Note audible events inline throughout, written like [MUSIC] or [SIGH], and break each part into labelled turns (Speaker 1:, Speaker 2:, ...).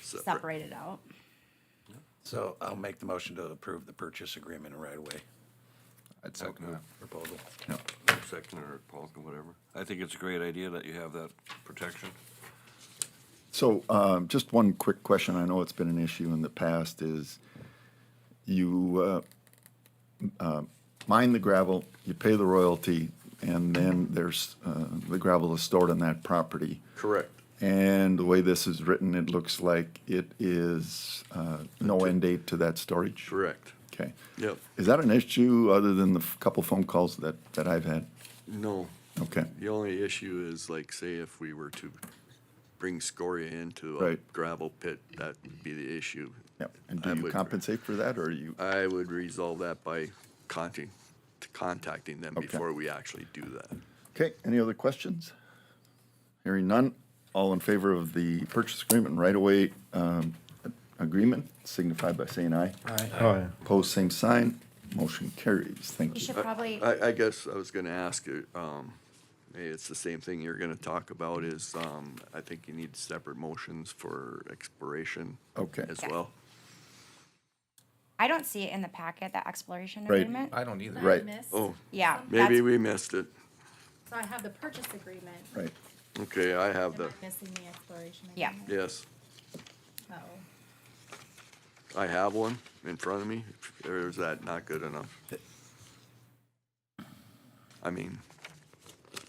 Speaker 1: separate.
Speaker 2: separated out.
Speaker 1: So I'll make the motion to approve the purchase agreement right away
Speaker 3: I'd second
Speaker 4: Okay.
Speaker 3: that.
Speaker 1: proposal.
Speaker 4: second or Paul, whatever. I think it's a great idea that you have that protection.
Speaker 3: So, um, just one quick question. I know it's been an issue in the past is you, uh, uh, mine the gravel, you pay the royalty, and then there's, uh, the gravel is stored on that property.
Speaker 4: Correct.
Speaker 3: And the way this is written, it looks like it is, uh, no end date to that storage.
Speaker 4: Correct.
Speaker 3: Okay.
Speaker 4: Yep.
Speaker 3: Is that an issue other than the f- couple phone calls that, that I've had?
Speaker 4: No,
Speaker 3: Okay.
Speaker 4: the only issue is like, say if we were to bring scoria into a
Speaker 3: Right.
Speaker 4: gravel pit, that would be the issue.
Speaker 3: Yep. And do
Speaker 4: I
Speaker 3: you
Speaker 4: would-
Speaker 3: compensate for that or are you?
Speaker 4: I would resolve that by contacting, contacting them
Speaker 3: Okay.
Speaker 4: before we actually do that.
Speaker 3: Okay, any other questions? Hearing none, all in favor of the purchase agreement, right away um, agreement, signify by saying aye.
Speaker 5: Aye.
Speaker 3: Opposed, same sign, motion carries,
Speaker 2: We
Speaker 3: thank you.
Speaker 2: should probably,
Speaker 4: I, I guess I was gonna ask, you, um, hey, it's the same thing you're gonna talk about is, um, I think you need separate motions for expiration.
Speaker 3: Okay.
Speaker 4: As
Speaker 2: Yeah.
Speaker 4: well.
Speaker 2: I don't see it in the packet, that exploration
Speaker 3: Right.
Speaker 2: agreement.
Speaker 5: I don't either.
Speaker 3: Right.
Speaker 4: Oh,
Speaker 2: Yeah.
Speaker 4: maybe
Speaker 2: that's-
Speaker 4: we missed it.
Speaker 6: So I have the purchase agreement.
Speaker 3: Right,
Speaker 4: Okay, I have
Speaker 6: Am I
Speaker 4: the,
Speaker 6: missing the exploration?
Speaker 2: Yeah.
Speaker 6: agreement?
Speaker 4: yes,
Speaker 6: Oh.
Speaker 4: I have one in front of me, or is that not good enough? I mean,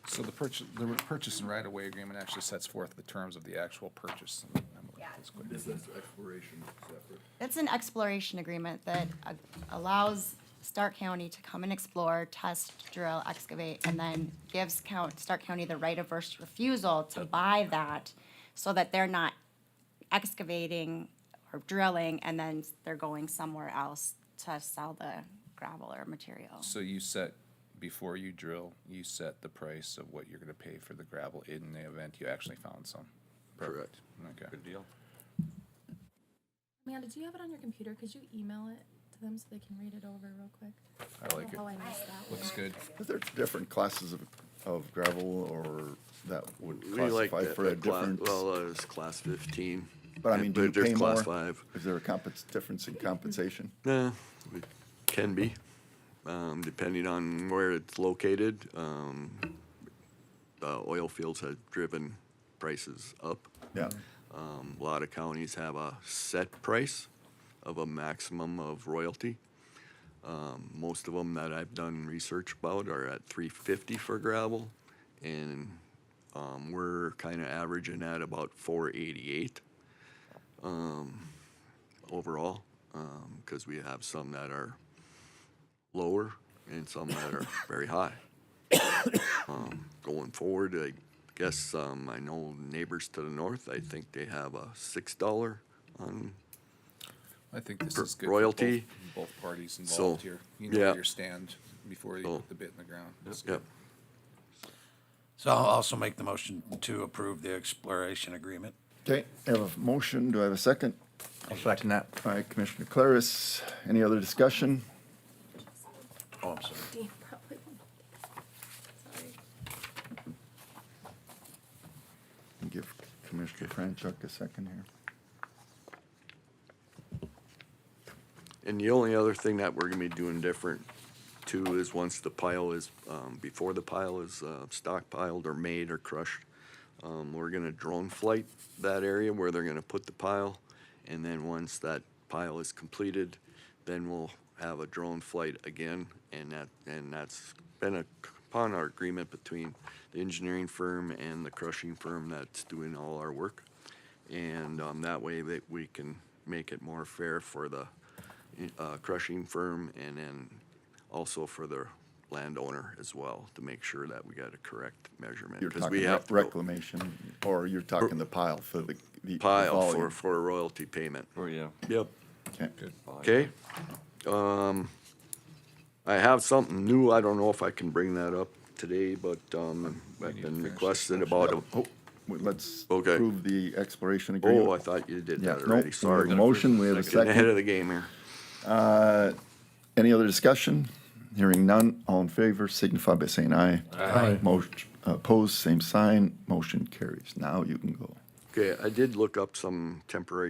Speaker 5: So the purchase, the purchase and right-of-way agreement actually sets forth the terms of the actual purchase. Let me look at this quick.
Speaker 2: It's an exploration agreement that uh, allows Stark County to come and explore, test, drill, excavate, and then gives count, Stark County the right of first refusal to buy that so that they're not excavating or drilling and then they're going somewhere else to sell the gravel or material.
Speaker 5: So you set, before you drill, you set the price of what you're gonna pay for the gravel in the event you actually found some.
Speaker 4: correct.
Speaker 5: Okay.
Speaker 4: Good deal.
Speaker 6: Amanda, do you have it on your computer? Could you email it to them so they can read it over real quick?
Speaker 5: I like it.
Speaker 6: Oh, I missed that one. [LAUGHS]
Speaker 5: Looks good.
Speaker 3: is there different classes of, of gravel or that would
Speaker 4: We like
Speaker 3: classify
Speaker 4: that,
Speaker 3: for a
Speaker 4: that cla-
Speaker 3: different?
Speaker 4: well, uh, it's class fifteen.
Speaker 3: But I mean, do you
Speaker 4: there's
Speaker 3: pay more?
Speaker 4: class Five.
Speaker 3: Is there a compens, difference in compensation?
Speaker 4: Yeah, it can be, um, depending on where it's located. Um, the oil fields have driven prices up.
Speaker 3: Yeah,
Speaker 4: Um, a lot of counties have a set price of a maximum of royalty. Um, most of them that I've done research about are at 350 for gravel, and um, we're kind of averaging at about 488 overall, because we have some that are lower and some that are very high. Um, Going forward, I guess, um, I know neighbors to the north, I think they have a six dollar on,
Speaker 5: I think this
Speaker 4: Per-
Speaker 5: is good. for
Speaker 4: royalty.
Speaker 5: both- Both parties
Speaker 4: So,
Speaker 5: involved here. You know
Speaker 4: yeah.
Speaker 5: where you stand before you
Speaker 4: So-
Speaker 5: put the bit in the ground. That's
Speaker 4: yep,
Speaker 5: good.
Speaker 1: So I'll also make the motion to approve the exploration agreement.
Speaker 3: okay, I have a motion, do I have a second?
Speaker 7: I'll second that.
Speaker 3: All right, Commissioner Claris, any other discussion?
Speaker 1: Oh, I'm sorry.
Speaker 6: Dean probably won't. Sorry.
Speaker 3: Give Commissioner Franchuk a second here.
Speaker 4: And the only other thing that we're gonna be doing different too is once the pile is, um, before the pile is, uh, stockpiled or made or crushed, um, we're gonna drone flight that area where they're gonna put the pile. And then once that pile is completed, then we'll have a drone flight again. And that, and that's been a, upon our agreement between the engineering firm and the crushing firm that's doing all our work. And, um, that way that we can make it more fair for the, uh, crushing firm and then also for the landowner as well to make sure that we got a correct measurement.
Speaker 3: You're
Speaker 4: 'cause
Speaker 3: talking
Speaker 4: we have
Speaker 3: about
Speaker 4: to go
Speaker 3: reclamation, or you're talking the pile for the. the
Speaker 4: Pile for,
Speaker 3: volume.
Speaker 4: for a royalty payment.
Speaker 7: Oh, yeah.
Speaker 4: Yep.
Speaker 3: Okay.
Speaker 4: Okay. Um, I have something new. I don't know if I can bring that up today, but, um, I've been requested about a,
Speaker 3: Oh, well, Let's
Speaker 4: Okay.
Speaker 3: approve the exploration agreement.
Speaker 4: oh, I thought you did
Speaker 3: Yeah,
Speaker 4: that
Speaker 3: no, we
Speaker 4: already.
Speaker 3: have
Speaker 4: Sorry.
Speaker 3: a motion, we have a
Speaker 4: Getting ahead
Speaker 3: second.
Speaker 4: of the game here.
Speaker 3: Any other discussion? Hearing none, all in favor signify by saying aye. Aye. Motion, opposed, same sign, motion carries. Now you can go.
Speaker 4: Okay, I did look up some temporary